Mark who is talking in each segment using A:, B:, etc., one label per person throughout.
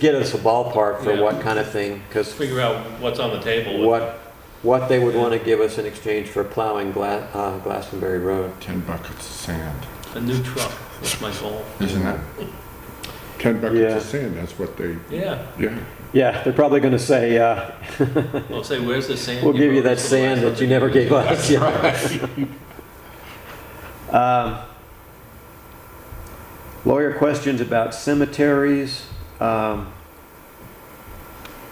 A: get us a ballpark for
B: Yeah.
A: what kind of thing, because
B: figure out what's on the table.
A: what, what they would want to give us in exchange for plowing Gla- uh, Glastonbury Road.
C: 10 buckets of sand,
B: A new truck, that's my goal.
C: isn't it? 10 buckets
A: Yeah.
C: of sand, that's what they,
B: Yeah,
C: yeah.
A: Yeah, they're probably going to say, uh,
B: well, say, where's the sand?
A: we'll give you
B: wrote
A: that
B: us the
A: sand
B: last
A: that you never
B: hundred years
A: gave
B: ago?
A: us. Yeah. Um, Lawyer questions about cemeteries. um,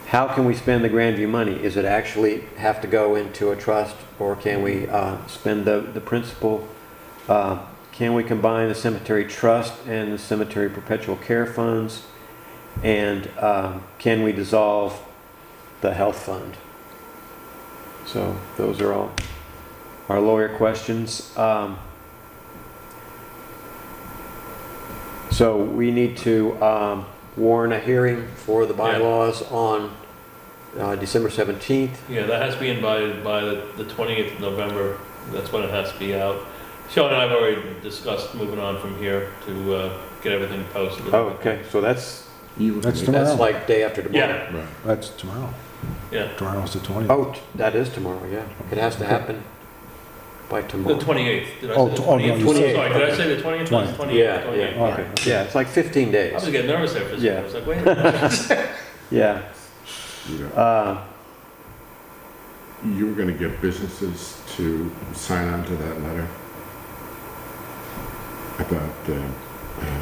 A: How can we spend the Grandview money? Is it actually have to go into a trust or can we uh, spend the, the principal? Uh, Can we combine the cemetery trust and the cemetery perpetual care funds? And um, can we dissolve the health fund? So those are all our lawyer questions. Um, So we need to um, warn a hearing for the bylaws on uh, December 17th.
B: Yeah, that has to be invited by the the 20th of November, that's when it has to be out. Sean and I have already discussed moving on from here to uh, get everything posted.
A: Oh, okay, so that's,
D: You,
E: That's
A: that's
E: tomorrow.
A: like day after tomorrow.
B: Yeah,
C: Right.
E: That's tomorrow.
B: yeah,
E: Tomorrow's the 20th.
A: Oh, t- that is tomorrow, yeah. It has to happen by
B: the
A: tomorrow.
B: 28th. Did I
E: Oh,
B: say the
E: t- oh, no,
B: 20th?
E: you
B: Sorry,
A: said-
B: did I say the 20th? No, it's 28th.
A: Yeah,
B: 28th.
A: yeah.
E: All right.
A: Yeah, it's like 15
B: I was
A: days.
B: getting nervous there for a
A: Yeah.
B: second, I was like, wait. a minute.
A: Yeah.
C: Yeah.
A: Uh,
C: You were gonna get businesses to sign on to that letter about uh, the,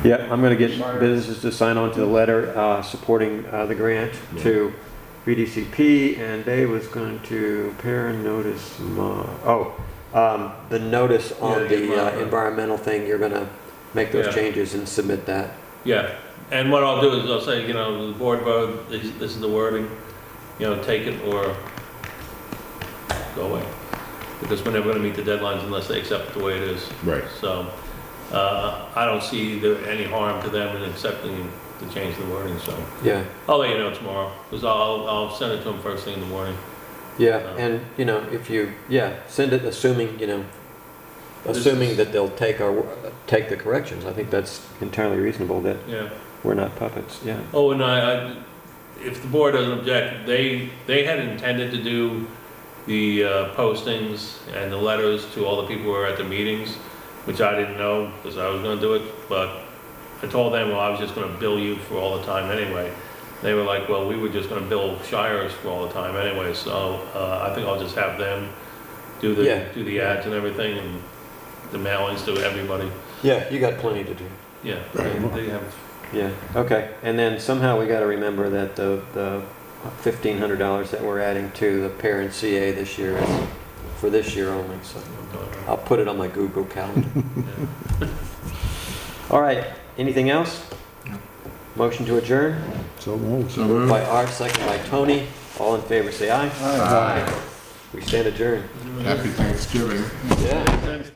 A: Yeah, I'm going to get businesses to sign on to the letter uh, supporting uh, the grant to BDCP, and they was going to pair notice, mo- oh, um, the notice on
B: Yeah, the
A: the uh,
B: environmental.
A: environmental thing, you're going to make
B: Yeah.
A: those changes and submit that.
B: Yeah, and what I'll do is I'll say, you know, the board vote, this this is the wording, you know, take it or go away. Because we're never gonna meet the deadlines unless they accept it the way it is.
C: right,
B: So, uh, I don't see there any harm to them in accepting the change of the wording, so.
A: Yeah,
B: I'll let you know tomorrow, because I'll, I'll send it to them first thing in the morning.
A: yeah,
B: So-
A: and, you know, if you, yeah, send it assuming, you know,
B: This
A: assuming
B: is-
A: that they'll take our, wo- take the corrections. I think that's entirely reasonable, that
B: Yeah.
A: we're not puppets, yeah.
B: Oh, and I, I, if the board doesn't object, they, they had intended to do the uh, postings and the letters to all the people who were at the meetings, which I didn't know, because I was gonna do it, but I told them, well, I was just gonna bill you for all the time anyway. They were like, well, we were just gonna bill Shires for all the time anyway, so, uh, I think I'll just have them do
A: Yeah.
B: the, do the ads and everything, and the mailings to everybody,
A: Yeah, you got plenty to do.
B: yeah. they- They have
A: Yeah, okay, and then somehow we gotta remember that the, the fifteen hundred dollars that we're adding to the parent CA this year is for this year only, so I'll put it on my Google Calendar. All right, anything else? Motion to adjourn
E: So moved.
C: so moved.
A: by Art, second by Tony, all in favor, say aye.
E: Aye.
A: We stand adjourned.
C: Happy Thanksgiving.
A: Yeah.